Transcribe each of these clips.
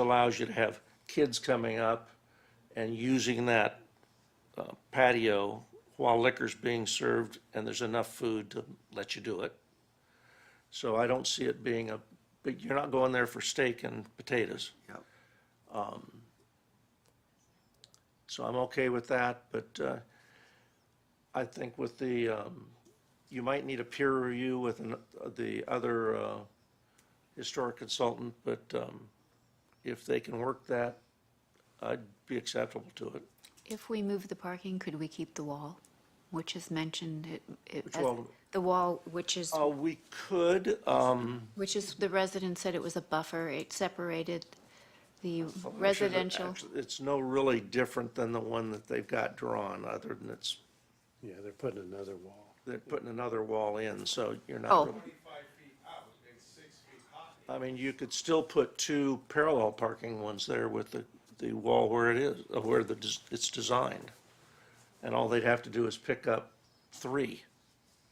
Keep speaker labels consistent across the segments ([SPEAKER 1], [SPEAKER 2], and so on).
[SPEAKER 1] allows you to have kids coming up and using that uh, patio while liquor's being served and there's enough food to let you do it. So I don't see it being a, but you're not going there for steak and potatoes. Um,
[SPEAKER 2] Yep.
[SPEAKER 1] So I'm okay with that, but uh, I think with the, um, you might need a peer review with an- the other uh, historic consultant, but um, if they can work that, I'd be acceptable to it.
[SPEAKER 3] If we move the parking, could we keep the wall, which is mentioned? it- it-
[SPEAKER 1] Which
[SPEAKER 3] as-
[SPEAKER 1] wall?
[SPEAKER 3] The wall, which
[SPEAKER 2] Oh.
[SPEAKER 3] is,
[SPEAKER 1] Uh, We could, um,
[SPEAKER 3] which is, the resident said it was a buffer, it separated the
[SPEAKER 1] which is
[SPEAKER 3] residential.
[SPEAKER 1] actually- It's no really different than the one that they've got drawn, other than it's,
[SPEAKER 4] Yeah, they're putting another wall.
[SPEAKER 1] they're putting another wall in, so you're
[SPEAKER 3] Oh.
[SPEAKER 1] not really.
[SPEAKER 5] Twenty-five feet out, it's six feet high.
[SPEAKER 1] I mean, you could still put two parallel parking ones there with the, the wall where it is, uh, where the, des- it's designed. And all they'd have to do is pick up three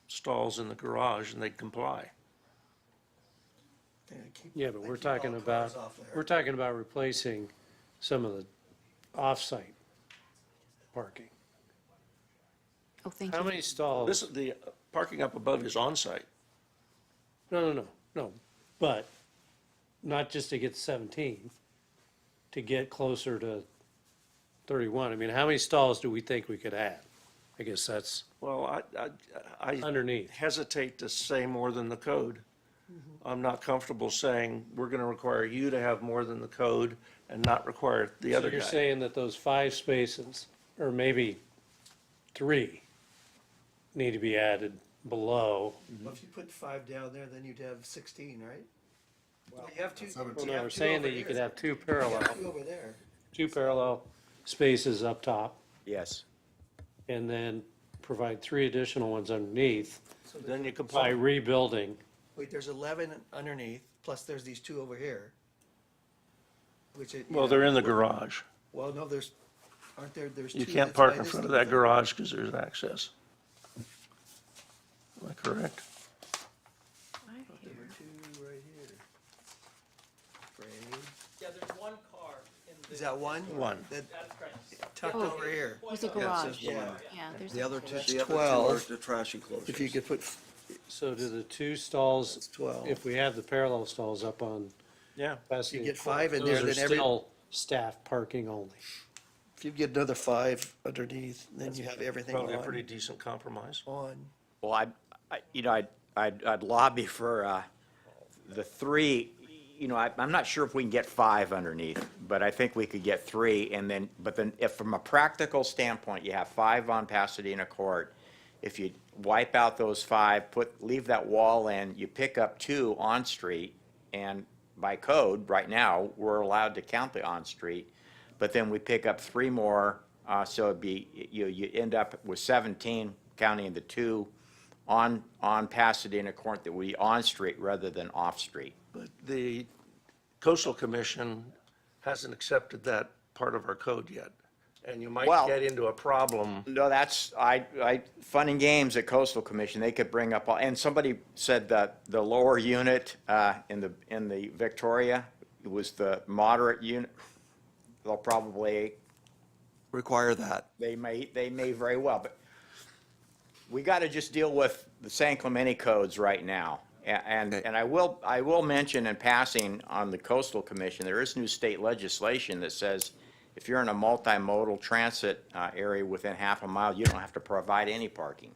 [SPEAKER 1] stalls in the garage and they'd comply.
[SPEAKER 2] They keep-
[SPEAKER 4] Yeah, but
[SPEAKER 2] they
[SPEAKER 4] we're
[SPEAKER 2] keep all
[SPEAKER 4] talking
[SPEAKER 2] cars
[SPEAKER 4] about,
[SPEAKER 2] off there.
[SPEAKER 4] we're talking about replacing some of the off-site parking.
[SPEAKER 3] Oh, thank
[SPEAKER 4] How
[SPEAKER 3] you.
[SPEAKER 4] many stalls?
[SPEAKER 1] This, is the uh, parking up above is on-site.
[SPEAKER 4] No, no, no, no, but not just to get seventeen, to get closer to thirty-one. I mean, how many stalls do we think we could add? I guess that's
[SPEAKER 1] Well, I, I, I
[SPEAKER 4] underneath.
[SPEAKER 1] hesitate to say more than the code.
[SPEAKER 2] Mm-hmm.
[SPEAKER 1] I'm not comfortable saying, we're gonna require you to have more than the code and not require the
[SPEAKER 4] So
[SPEAKER 1] other
[SPEAKER 4] you're
[SPEAKER 1] guy.
[SPEAKER 4] saying that those five spaces, or maybe three, need to be added below
[SPEAKER 2] Well, if you put five down there, then you'd have sixteen, right? Well, you have two.
[SPEAKER 4] Well,
[SPEAKER 2] you
[SPEAKER 4] no,
[SPEAKER 2] have
[SPEAKER 4] we're
[SPEAKER 2] two
[SPEAKER 4] saying
[SPEAKER 2] over
[SPEAKER 4] that you
[SPEAKER 2] here.
[SPEAKER 4] could have two
[SPEAKER 2] You have
[SPEAKER 4] parallel,
[SPEAKER 2] two over there.
[SPEAKER 4] two parallel spaces up top,
[SPEAKER 6] Yes.
[SPEAKER 4] and then provide three additional ones underneath
[SPEAKER 2] So there's-
[SPEAKER 1] Then you
[SPEAKER 4] by
[SPEAKER 1] comply.
[SPEAKER 4] rebuilding.
[SPEAKER 2] wait, there's eleven underneath, plus there's these two over here. Which it.
[SPEAKER 1] Well, they're in the garage.
[SPEAKER 2] Well, no, there's, aren't there, there's two.
[SPEAKER 1] You can't
[SPEAKER 2] that's by
[SPEAKER 1] park in
[SPEAKER 2] this
[SPEAKER 1] front of
[SPEAKER 2] little
[SPEAKER 1] that
[SPEAKER 2] thing.
[SPEAKER 1] garage because there's access. Am I correct?
[SPEAKER 2] There were two right here. Frame.
[SPEAKER 7] Yeah, there's one car in the.
[SPEAKER 2] Is that one?
[SPEAKER 1] One.
[SPEAKER 2] That
[SPEAKER 7] That's correct.
[SPEAKER 2] tucked
[SPEAKER 3] Oh.
[SPEAKER 2] over here.
[SPEAKER 3] There's a
[SPEAKER 2] Yeah, it
[SPEAKER 3] garage.
[SPEAKER 2] says one.
[SPEAKER 3] Yeah, there's.
[SPEAKER 2] The
[SPEAKER 3] a-
[SPEAKER 2] other two,
[SPEAKER 6] The other two are
[SPEAKER 2] twelve,
[SPEAKER 6] the trash enclosures.
[SPEAKER 2] if you could put,
[SPEAKER 4] So do the two stalls,
[SPEAKER 2] twelve.
[SPEAKER 4] if we have the parallel stalls up on
[SPEAKER 1] Yeah.
[SPEAKER 4] Pasadena.
[SPEAKER 2] You get
[SPEAKER 4] Court,
[SPEAKER 2] five in there,
[SPEAKER 4] those are
[SPEAKER 2] then every-
[SPEAKER 4] Still staff parking only.
[SPEAKER 2] if you get another five underneath, then you have everything
[SPEAKER 1] Probably a pretty
[SPEAKER 2] on,
[SPEAKER 1] decent compromise.
[SPEAKER 2] on.
[SPEAKER 6] Well, I, I- you know, I'd, I'd I'd lobby for uh, the three, you know, I- I'm not sure if we can get five underneath, but I think we could get three, and then, but then if, from a practical standpoint, you have five on Pasadena Court, if you wipe out those five, put, leave that wall in, you pick up two on-street, and by code, right now, we're allowed to count the on-street, but then we pick up three more, uh, so it'd be, you, you end up with 17, counting the two on, on Pasadena Court that we on-street rather than off-street.
[SPEAKER 1] But the coastal commission hasn't accepted that part of our code yet. And you might
[SPEAKER 6] Well-
[SPEAKER 1] get into a problem.
[SPEAKER 6] No, that's, I, I, fun and games at Coastal Commission, they could bring up, all and somebody said that the lower unit uh, in the, in the Victoria was the moderate unit. They'll probably
[SPEAKER 2] Require that.
[SPEAKER 6] They may, they may very well, but we got to just deal with the San Clemente codes right now. A- And, and I will, I will mention in passing on the coastal commission, there is new state legislation that says if you're in a multimodal transit uh, area within half a mile, you don't have to provide any parking.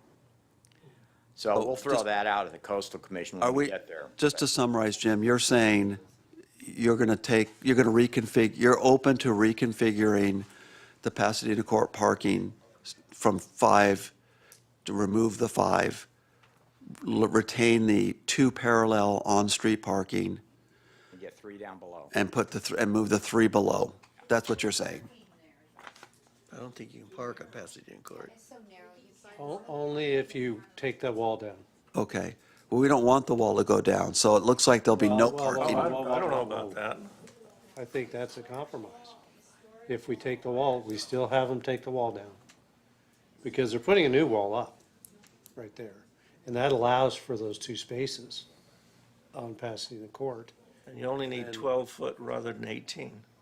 [SPEAKER 6] So
[SPEAKER 8] Oh,
[SPEAKER 6] we'll throw
[SPEAKER 8] just-
[SPEAKER 6] that out at the coastal commission
[SPEAKER 8] Are
[SPEAKER 6] when we
[SPEAKER 8] we,
[SPEAKER 6] get there.
[SPEAKER 8] just to summarize, Jim, you're saying you're going to take, you're going to reconfig, you're open to reconfiguring the Pasadena Court parking s- from five, to remove the five, l- retain the two parallel on-street parking,
[SPEAKER 6] We Get three down below.
[SPEAKER 8] and put the, thr- and move the three below. That's what you're saying.
[SPEAKER 2] I don't think you can park on Pasadena Court.
[SPEAKER 4] O- Only if you take that wall down.
[SPEAKER 8] Okay. Well, we don't want the wall to go down, so it looks like there'll be no
[SPEAKER 4] Well, well, well,
[SPEAKER 1] I
[SPEAKER 8] parking.
[SPEAKER 4] well,
[SPEAKER 1] I don't know
[SPEAKER 4] well, well.
[SPEAKER 1] about that.
[SPEAKER 4] I think that's a compromise. If we take the wall, we still have them take the wall down. Because they're putting a new wall up, right there. And that allows for those two spaces on Pasadena Court.
[SPEAKER 1] And you only need twelve foot rather than eighteen.